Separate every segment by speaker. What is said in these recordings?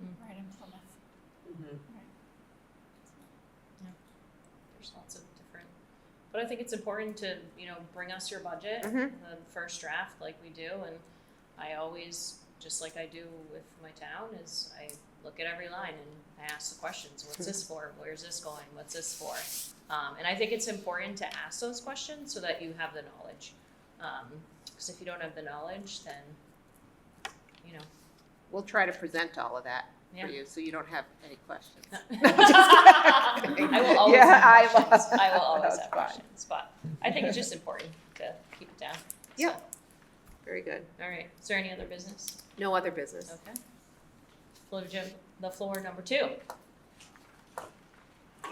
Speaker 1: in Plymouth.
Speaker 2: Mhm.
Speaker 3: There's lots of different, but I think it's important to, you know, bring us your budget, the
Speaker 4: Mhm.
Speaker 3: first draft like we do, and I always, just like I do with my town, is I look at every line and I ask the questions, what's this for, where's this going, what's this for? Um, and I think it's important to ask those questions so that you have the knowledge, um, cause if you don't have the knowledge, then, you know.
Speaker 4: We'll try to present all of that
Speaker 3: Yeah.
Speaker 4: for you, so you don't have any questions. kidding.
Speaker 3: I will always
Speaker 4: Yeah, I
Speaker 3: have
Speaker 4: love-
Speaker 3: questions. I will always
Speaker 4: that's
Speaker 3: have
Speaker 4: fine.
Speaker 3: questions, but I think it's just important to keep it down. So,
Speaker 4: Yeah. Very good.
Speaker 3: All right, is there any other business?
Speaker 4: No other business.
Speaker 3: Okay. Floor to Jim- the floor number two.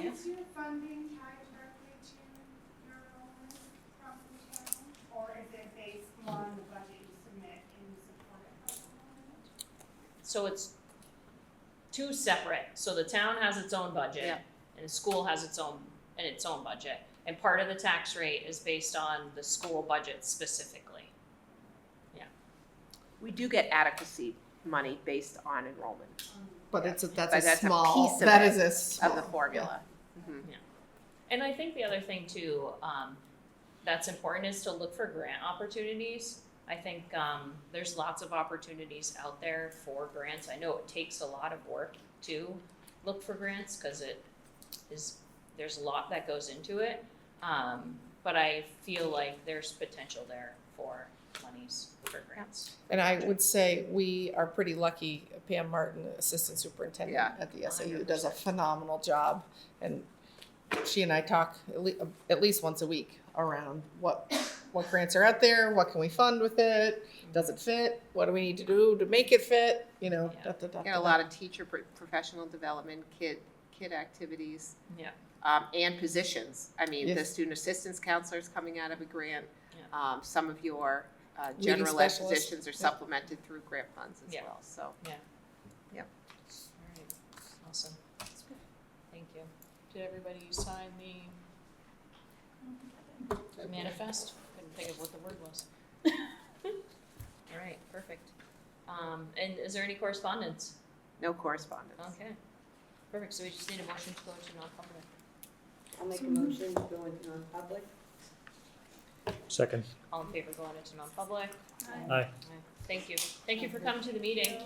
Speaker 5: Is your funding tied directly to your enrollment from the town? Or is it based on the budget you submit in support of health enrollment?
Speaker 3: So it's two separate, so the town has its own budget
Speaker 4: Yeah.
Speaker 3: and the school has its own, and its own budget. And part of the tax rate is based on the school budget specifically.
Speaker 4: We do get adequacy money based on enrollment
Speaker 2: But it's a, that's
Speaker 4: But
Speaker 2: a
Speaker 4: that's a
Speaker 2: small,
Speaker 4: piece of
Speaker 2: that
Speaker 4: it,
Speaker 2: is a small.
Speaker 4: of the formula.
Speaker 3: And I think the other thing too, um, that's important is to look for grant opportunities. I think, um, there's lots of opportunities out there for grants. I know it takes a lot of work to look for grants, cause it is, there's a lot that goes into it. Um, but I feel like there's potential there for monies for grants.
Speaker 2: And I would say we are pretty lucky, Pam Martin, Assistant Superintendent
Speaker 4: Yeah.
Speaker 2: at the SAU, does a phenomenal job. And she and I talk at le- at least once a week around what, what grants are out there, what can we fund with it? Does it fit? What do we need to do to make it fit? You know,
Speaker 3: Yeah.
Speaker 2: da, da, da,
Speaker 4: Got a lot of teacher pro- professional development, kid, kid activities.
Speaker 3: Yeah.
Speaker 4: Um, and positions. I mean, the
Speaker 2: Yes.
Speaker 4: student assistance counselor is coming out of a grant.
Speaker 3: Yeah.
Speaker 4: Um, some of your, uh,
Speaker 2: Leading
Speaker 4: general ed
Speaker 2: specialist.
Speaker 4: positions are supplemented through grant funds as
Speaker 3: Yeah.
Speaker 4: well, so.
Speaker 3: Alright, awesome. Thank you. Did everybody sign the manifest? Couldn't think of what the word was. Alright, perfect. Um, and is there any correspondence?
Speaker 4: No correspondence.
Speaker 3: Okay. Perfect, so we just need a motion to go to non-public.
Speaker 6: I'll make a motion to go into non-public.
Speaker 7: Second.
Speaker 3: All in favor going into non-public?
Speaker 7: Aye.
Speaker 3: Thank you. Thank you for coming to the meeting.